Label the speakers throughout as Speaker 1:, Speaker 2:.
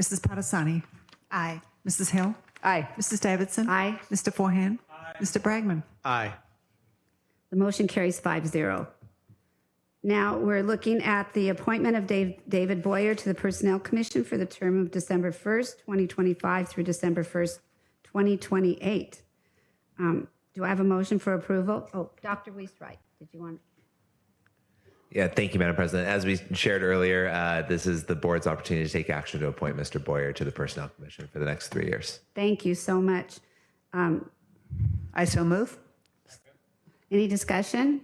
Speaker 1: Mrs. Parasani?
Speaker 2: Aye.
Speaker 1: Mrs. Hill?
Speaker 3: Aye.
Speaker 1: Mrs. Davidson?
Speaker 2: Aye.
Speaker 1: Mr. Forehand? Mr. Bragman?
Speaker 4: Aye.
Speaker 3: The motion carries 5-0. Now, we're looking at the appointment of Dave- David Boyer to the Personnel Commission for the term of December 1st, 2025 through December 1st, 2028. Um, Do I have a motion for approval? Oh, Dr. Weiss-Wright, did you want?
Speaker 5: Yeah, thank you, Madam President. As we shared earlier, uh, this is the board's opportunity to take action to appoint Mr. Boyer to the Personnel Commission for the next three years.
Speaker 3: Thank you so much.
Speaker 2: I so move.
Speaker 3: Any discussion?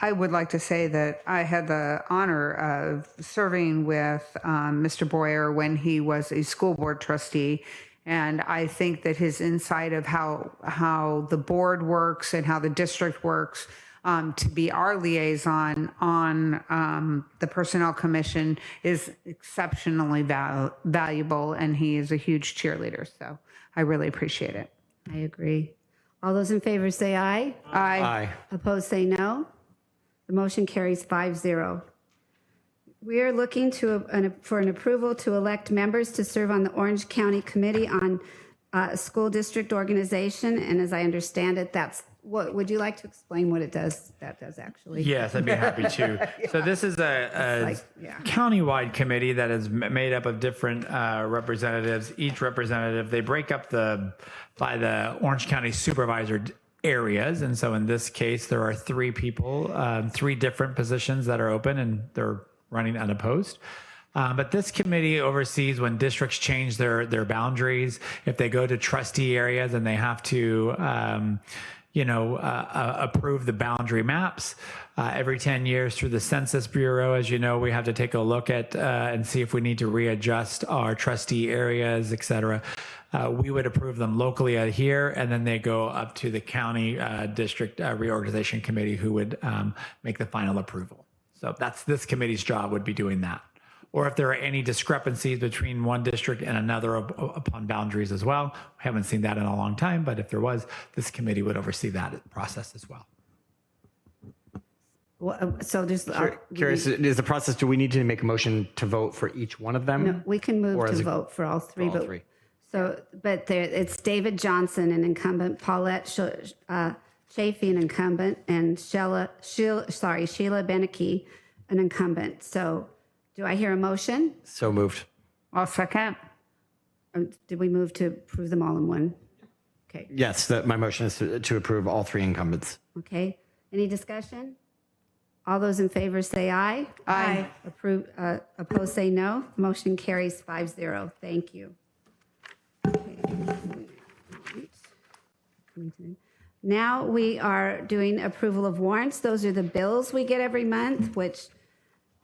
Speaker 6: I would like to say that I had the honor of serving with um, Mr. Boyer when he was a school board trustee. And I think that his insight of how, how the board works and how the district works um, to be our liaison on um, the Personnel Commission is exceptionally val- valuable. And he is a huge cheerleader. So I really appreciate it.
Speaker 3: I agree. All those in favor say aye.
Speaker 2: Uh,
Speaker 6: I,
Speaker 4: Aye.
Speaker 3: Opposed, say no. The motion carries 5-0. We are looking to, uh, an- for an approval to elect members to serve on the Orange County Committee on uh, School District Organization, and as I understand it, that's, what, would you like to explain what it does, that does actually?
Speaker 7: Yes, I'd be happy to. So this is a,
Speaker 3: It's
Speaker 7: a
Speaker 3: like- yeah.
Speaker 7: countywide committee that is m- made up of different uh, representatives. Each representative, they break up the by the Orange County supervisor d- areas, and so in this case, there are three people, um, three different positions that are open, and they're running unopposed. Um, but this committee oversees when districts change their their boundaries. If they go to trustee areas and they have to, um, you know, uh, uh, approve the boundary maps uh, every ten years through the Census Bureau. As you know, we have to take a look at uh, and see if we need to readjust our trustee areas, et cetera. Uh, we would approve them locally out here, and then they go up to the county uh, district uh, reorganization committee, who would um, make the final approval. So that's this committee's job would be doing that. Or if there are any discrepancies between one district and another up- upon boundaries as well. We haven't seen that in a long time, but if there was, this committee would oversee that process as well.
Speaker 3: Well, uh, So there's, uh,
Speaker 4: Curious, is the process, do we need to make a motion to vote for each one of them?
Speaker 3: uh, we can
Speaker 4: Or
Speaker 3: move
Speaker 4: as
Speaker 3: to
Speaker 4: a-
Speaker 3: vote for all three.
Speaker 4: all
Speaker 3: but-
Speaker 4: three.
Speaker 3: So, but there, it's David Johnson, an incumbent, Paulette Sh- uh, Chafee, an incumbent, and Sheila, Sheila, sorry, Sheila Beneke, an incumbent. So do I hear a motion?
Speaker 4: So moved.
Speaker 6: I'll second.
Speaker 3: Or did we move to approve them all in one? Okay,
Speaker 4: Yes, that my motion is to to approve all three incumbents.
Speaker 3: okay. Any discussion? All those in favor say aye.
Speaker 6: Aye.
Speaker 3: Approve, uh, opposed, say no. Motion carries five zero. Thank you. Now we are doing approval of warrants. Those are the bills we get every month, which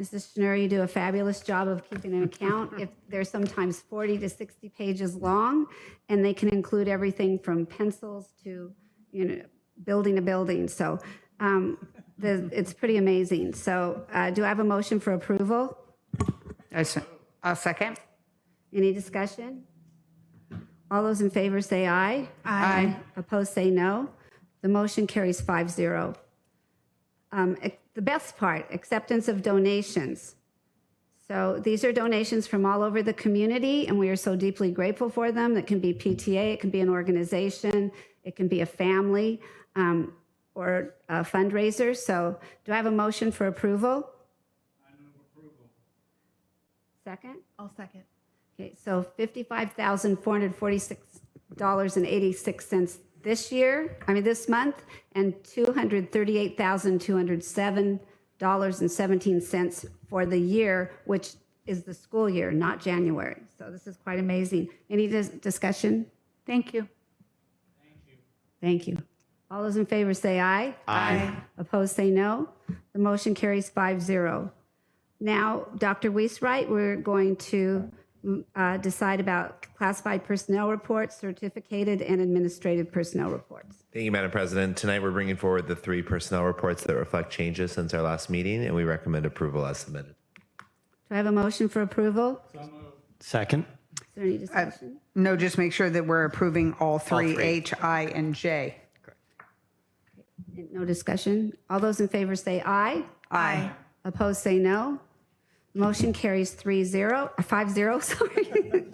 Speaker 3: Mrs. Schnur, you do a fabulous job of keeping an account. If they're sometimes 40 to 60 pages long, and they can include everything from pencils to, you know, building a building. So um, the, it's pretty amazing. So uh, do I have a motion for approval?
Speaker 6: I se- I'll second.
Speaker 3: Any discussion? All those in favor say aye.
Speaker 6: Aye.
Speaker 3: Opposed say no. The motion carries 5-0. Um, ac- The best part, acceptance of donations. So these are donations from all over the community, and we are so deeply grateful for them. It can be PTA, it can be an organization, it can be a family, um, or a fundraiser. So do I have a motion for approval? I move approval. Second?
Speaker 2: I'll second.
Speaker 3: Okay, so fifty-five thousand four hundred forty-six dollars and eighty-six cents this year, I mean, this month, and two hundred thirty-eight thousand two hundred seven dollars and seventeen cents for the year, which is the school year, not January. So this is quite amazing. Any dis- discussion?
Speaker 6: Thank you.
Speaker 3: Thank you. All those in favor say aye. Aye. Opposed, say no. The motion carries 5-0. Now, Dr. Weiss-Wright, we're going to mm, uh, decide about classified personnel reports, certificated and administrative personnel reports.
Speaker 5: Thank you, Madam President. Tonight, we're bringing forward the three personnel reports that reflect changes since our last meeting, and we recommend approval as submitted.
Speaker 3: Do I have a motion for approval? Is
Speaker 4: Second.
Speaker 3: there any discussion?
Speaker 6: No, just make sure that we're approving all three, H, I, and J.
Speaker 3: No discussion? All those in favor say aye.
Speaker 6: Aye.
Speaker 3: Opposed, say no. Motion carries 3-0, 5-0, sorry.